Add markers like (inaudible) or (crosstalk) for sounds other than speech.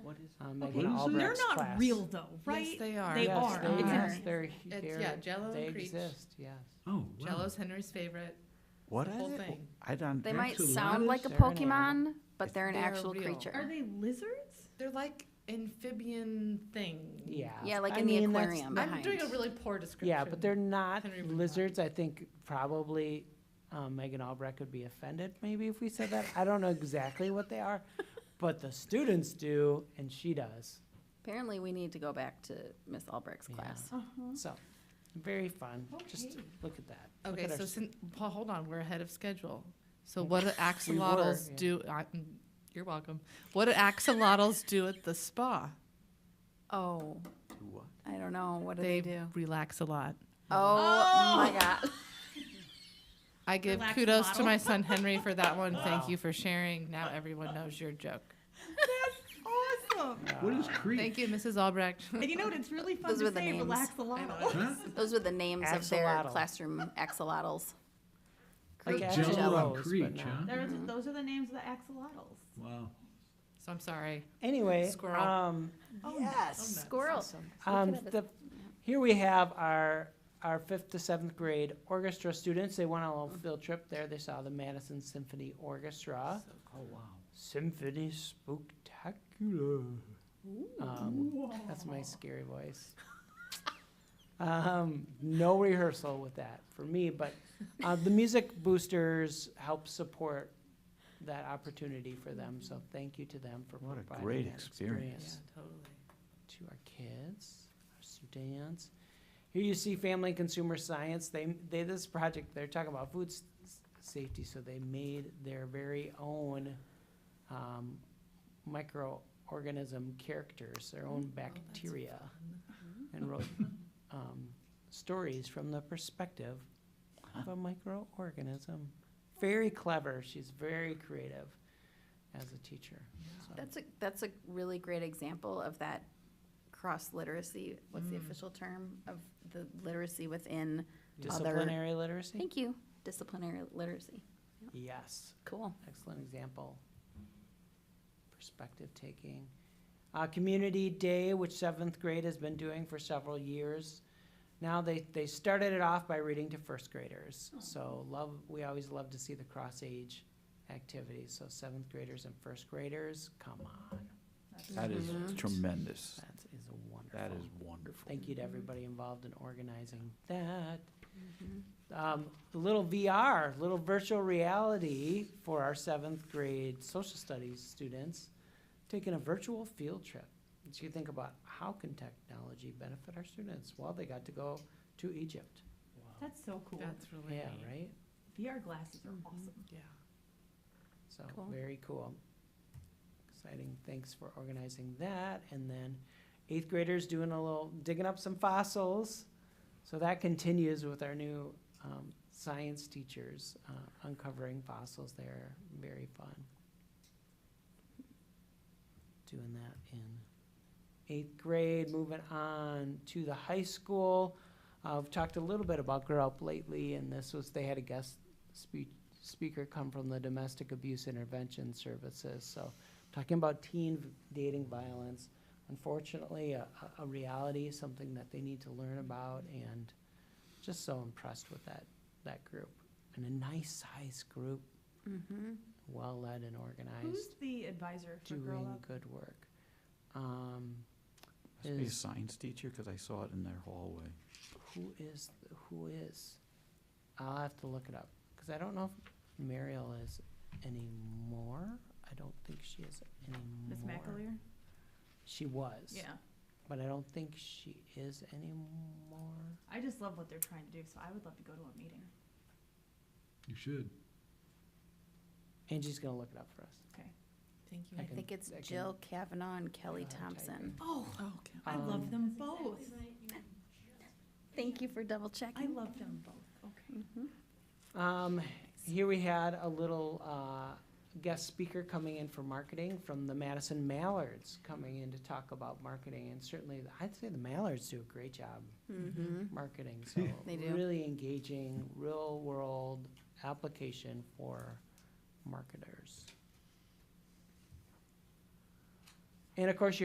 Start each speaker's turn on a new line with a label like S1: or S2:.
S1: um, Megan
S2: Okay.
S3: What is it?
S1: Albrecht's
S2: They're
S1: class.
S2: not real though, right?
S4: Yes, they are.
S2: They
S1: Yes,
S2: are.
S1: They
S2: Okay.
S1: yes, they're,
S4: It's-
S1: they're-
S4: yeah, Jello
S1: they
S4: and Creech.
S1: exist, yes.
S3: Oh, wow.
S4: Jello's Henry's favorite.
S3: What
S4: the
S3: are
S4: whole
S3: they?
S4: thing.
S3: I don't.
S5: They
S3: that's
S5: might
S3: a lot
S5: sound
S3: of-
S5: like a
S1: They're an animal.
S5: Pokemon, but they're an
S4: They're
S5: actual
S4: real.
S2: Are
S5: creature.
S2: they lizards?
S4: They're like amphibian thing.
S1: Yeah.
S5: Yeah, like
S1: I
S5: in the
S1: mean, that's-
S5: aquarium
S4: I'm
S5: behind.
S4: doing a really poor description.
S1: Yeah, but they're not
S4: Henry would not.
S1: lizards. I think probably um, Megan Albrecht would be offended maybe if we said that. I don't know exactly what they are, but the students do, and she does.
S5: Apparently, we need to go back to Miss Albrecht's
S1: Yeah.
S5: class.
S2: Uh-huh.
S1: So, very fun. Just
S2: Okay.
S1: look at that. Look
S4: Okay,
S1: at our
S4: so
S1: s-
S4: since, Paul, hold on, we're ahead of schedule. So what do axolotls
S1: yeah.
S4: do, I- mm, you're welcome. What do axolotls do at the spa?
S5: Oh,
S3: What?
S5: I don't know. What do they, do?
S4: relax a lot.
S5: Oh, my God.
S4: I give
S2: Relax
S4: kudos to
S2: model.
S4: my son Henry for that one.
S1: Wow.
S4: Thank you for sharing. Now everyone knows your joke.
S2: That's awesome.
S3: What is
S4: Thank
S3: Crete?
S4: you, Mrs. Albrecht. (laughs)
S2: And you know what? It's really fun
S5: Those were
S2: to
S5: the
S2: say
S5: names.
S2: relax a
S4: I know.
S2: lot.
S3: Huh?
S5: Those were the names of their
S1: Axolotl.
S5: classroom axolotls.
S1: Like
S5: Creature
S1: Axolotls,
S3: Jello
S1: but
S3: and Creech,
S1: not-
S3: huh?
S2: There's- Those are the names of the axolotls.
S3: Wow.
S4: So I'm sorry.
S1: Anyway,
S4: Squirrel.
S1: um,
S5: Yes, squirrel.
S1: um, the, here we have our our fifth to seventh grade orchestra students. They went on a little field trip there. They saw the Madison Symphony Orchestra.
S3: Oh, wow.
S1: Symphony Spectacular. Um, that's my scary voice. Um, no rehearsal with that for me, but uh, the music boosters help support that opportunity for them. So thank you to them for
S3: What a
S1: providing
S3: great
S1: that
S3: experience.
S1: experience
S4: totally.
S1: to our kids, our students. Here you see family and consumer science. They, they, this project, they're talking about food s- s- safety, so they made their very own um, microorganism characters, their own bacteria, and wrote um, stories from the perspective of a microorganism. Very clever. She's very creative as a teacher. so.
S5: That's a, that's a really great example of that cross literacy. What's the official term of the literacy within?
S1: Disciplinary literacy?
S5: Thank you. Disciplinary literacy.
S1: Yes.
S5: Cool.
S1: excellent example. Perspective taking. Uh, Community Day, which seventh grade has been doing for several years. Now they, they started it off by reading to first graders. So love, we always love to see the cross age activities. So seventh graders and first graders, come on,
S3: That is
S5: Mhm.
S3: tremendous.
S1: that is
S3: Mm-hmm.
S1: wonderful.
S3: That is wonderful.
S1: Thank you to everybody involved in organizing that. Um, a little VR, little virtual reality for our seventh grade social studies students, taking a virtual field trip. So you think about how can technology benefit our students? Well, they got to go to Egypt.
S2: That's so cool.
S4: That's really
S1: Yeah,
S4: neat.
S1: right?
S2: VR glasses are
S5: Mhm.
S2: awesome.
S4: Yeah.
S1: So,
S5: Cool.
S1: very cool. Exciting, thanks for organizing that, and then eighth graders doing a little, digging up some fossils. So that continues with our new, um, science teachers, uh, uncovering fossils there, very fun. Doing that in eighth grade, moving on to the high school. Uh, I've talked a little bit about Grow Up lately, and this was, they had a guest speech speaker come from the Domestic Abuse Intervention Services. So, talking about teen v- dating violence, unfortunately, a, a a reality, something that they need to learn about, and just so impressed with that that group and a nice size group,
S5: Mm-hmm.
S1: well led and organized,
S2: Who's the advisor Mm-hmm. for Girl
S1: doing
S2: Up?
S1: good work. Um,
S3: Must be a
S1: is-
S3: science teacher, because I saw it in their hallway.
S1: who is th- who is? I'll have to look it up because I don't know if Mariel is anymore. I don't think she is anymore.
S2: Miss McAleer?
S1: She was.
S2: Yeah.
S1: But I don't think she is anymore.
S2: I just love what they're trying to do, so I would love to go to a meeting.
S3: You should.
S1: Angie's gonna look it up for us.
S4: Thank you.
S1: I
S5: I
S1: can-
S5: think it's
S1: I can-
S5: Jill Kavanaugh and Kelly
S1: I'll type
S5: Thompson.
S2: Oh,
S4: Oh,
S2: I
S1: Um,
S2: love them both.
S5: Thank you for double
S2: I
S5: checking.
S2: love them both. Okay.
S5: Mhm.
S1: Um, here we had a little, uh, guest speaker coming in for marketing from the Madison Mallards, coming in to talk about marketing, and certainly, I'd say the Mallards do a great job
S5: Mhm.
S1: marketing, so.
S5: They do.
S1: Really engaging, real-world application for marketers. And of course,